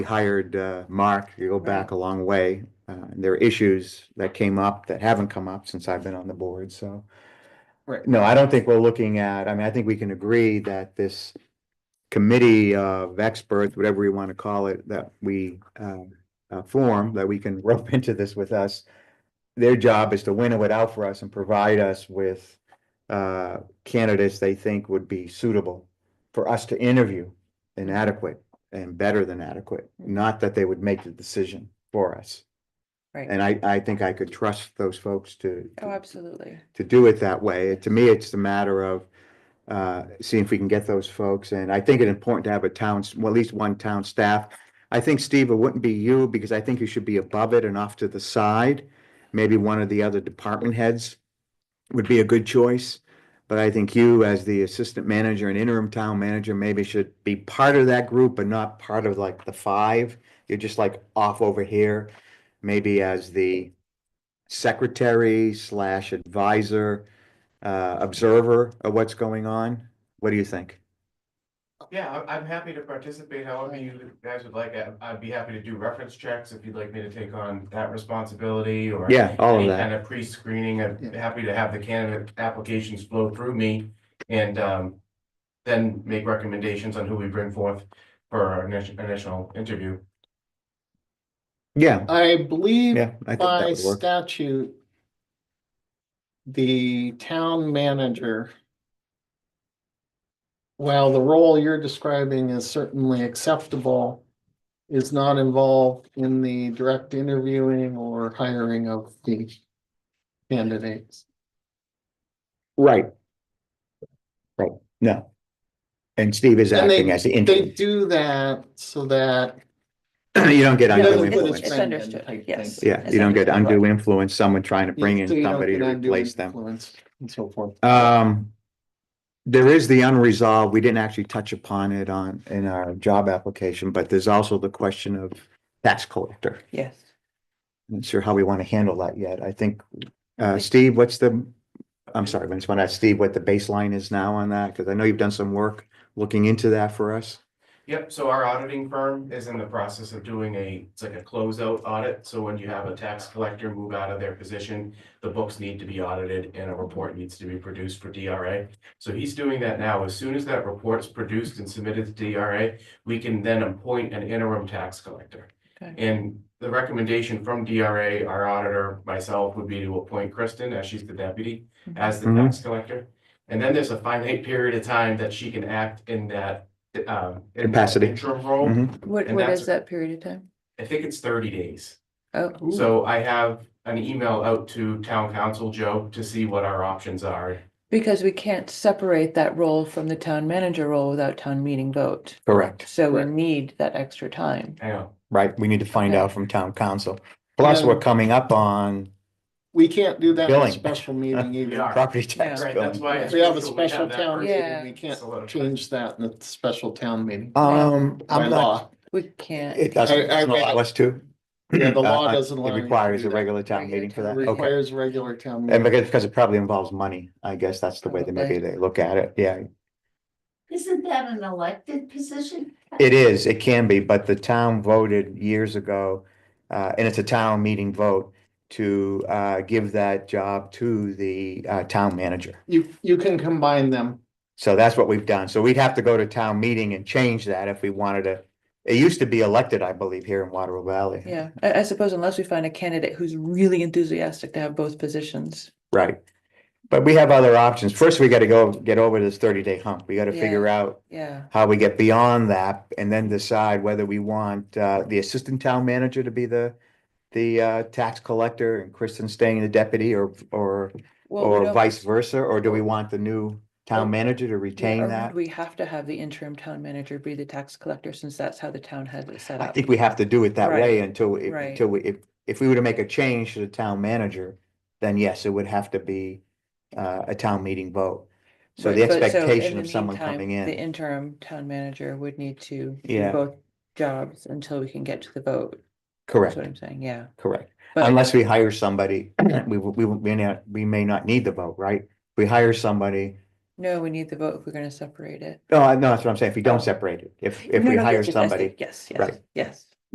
We hired uh, Mark, you go back a long way. Uh, and There are issues that came up that haven't come up since I've been on the board, so. Right. No, I don't think we're looking at, I mean, I think we can agree that this committee of experts, whatever you want to call it, that we uh, uh, form, that we can rope into this with us. Their job is to winnow it out for us and provide us with uh, candidates they think would be suitable for us to interview and adequate and better than adequate, not that they would make the decision for us. Right. And I, I think I could trust those folks to, Oh, absolutely. to do it that way. To me, it's the matter of uh, seeing if we can get those folks. And I think it's important to have a town, well, at least one town staff. I think, Steve, it wouldn't be you because I think you should be above it and off to the side. Maybe one of the other department heads would be a good choice. But I think you, as the assistant manager and interim town manager, maybe should be part of that group, but not part of like the five. You're just like off over here, maybe as the secretary slash advisor, uh, observer of what's going on. What do you think? Yeah, I- I'm happy to participate however you guys would like. I- I'd be happy to do reference checks if you'd like me to take on that responsibility or. Yeah, all of any that. Kind of pre-screening. I'm happy to have the candidate applications flow through me and um, then make recommendations on who we bring forth for our initial, initial interview. Yeah, I believe yeah, I think that by would work. statute, the town manager, while the role you're describing is certainly acceptable, is not involved in the direct interviewing or hiring of the candidates. Right. Right, no. And Steve is And they- acting as the They interim. do that so that You don't get It doesn't undue put influence. its It's friend in type understood, thing. yes. Yeah, it's you don't get understood. undue influence, someone trying to bring in so you don't somebody get to undue replace them. influence And so forth. Um, there is the unresolved, we didn't actually touch upon it on, in our job application, but there's also the question of tax collector. Yes. Not sure how we want to handle that yet. I think, uh, think- Steve, what's the, I'm sorry, I just want to ask Steve what the baseline is now on that, because I know you've done some work looking into that for us. Yep, so our auditing firm is in the process of doing a, it's like a closeout audit, so when you have a tax collector move out of their position, the books need to be audited and a report needs to be produced for DRA. So he's doing that now, as soon as that report is produced and submitted to DRA, we can then appoint an interim tax collector. Okay. And the recommendation from DRA, our auditor, myself, would be to appoint Kristen, as she's the deputy, as the Mhm. tax collector. And then there's a finite period of time that she can act in that, um. in that Capacity. Interim Mm-hmm. role, Mhm. What, And what that's- is that period of time? I think it's thirty days. Oh, So I have an email out to town council, Joe, to see what our options are. because we can't separate that role from the town manager role without town meeting vote. Correct. So we Correct. need that extra time. I know, Right, we need to find out from town council. Plus, Yeah. we're coming up on We can't do that in Billing. a special meeting We either. are. property tax right, that's billing. why. it's We have a crucial we special that town first- Yeah. meeting, we can't Solidified. change that in a special town meeting. Um, By I'm not, law, We can't. it doesn't, I- I it's not read- us too. Yeah, the law Uh, uh, doesn't allow It you to requires do a that. regular town Regular meeting for town that, meeting. okay. requires a regular town And meeting. because, because it probably involves money, I guess that's the Oh, way that maybe they look at it, yeah. Isn't that an elected position? It is, it can be, but the town voted years ago, uh, and it's a town meeting vote to, uh, give that job to the, uh, town manager. You, you can combine them. So that's what we've done. So we'd have to go to town meeting and change that if we wanted to. It used to be elected, I believe, here in Waterville Valley. Yeah, I, I suppose unless we find a candidate who's really enthusiastic to have both positions. Right. But we have other options. First, we gotta go, get over this thirty day hump. We gotta Yeah. figure out Yeah, how we get beyond that and then decide whether we want uh the assistant town manager to be the the uh tax collector and Kristen staying the deputy or or well, we or don't- vice versa, or do we want the new Or- town manager to yeah, or retain that? would We have to have the interim town manager be the tax collector since that's how the town has it set I up. think we have to do it that Right. way until it- Right. until we if if we were to make a change to the town manager, then yes, it would have to be uh a town meeting vote. So Right, the but in expectation the of someone meantime, coming The in, interim town manager would need to do Yeah. both jobs until we can get to the vote. That's correct, what I'm saying, yeah. correct. But- Unless we hire somebody, we, we, we, may not- we may not need the vote, right? We hire somebody, No, we need the vote if we're gonna separate it. no, I- no, that's what I'm saying, if we don't separate it, if, if No, we no, hire yes, yes, yes, somebody, Yes, yes, Right. yes.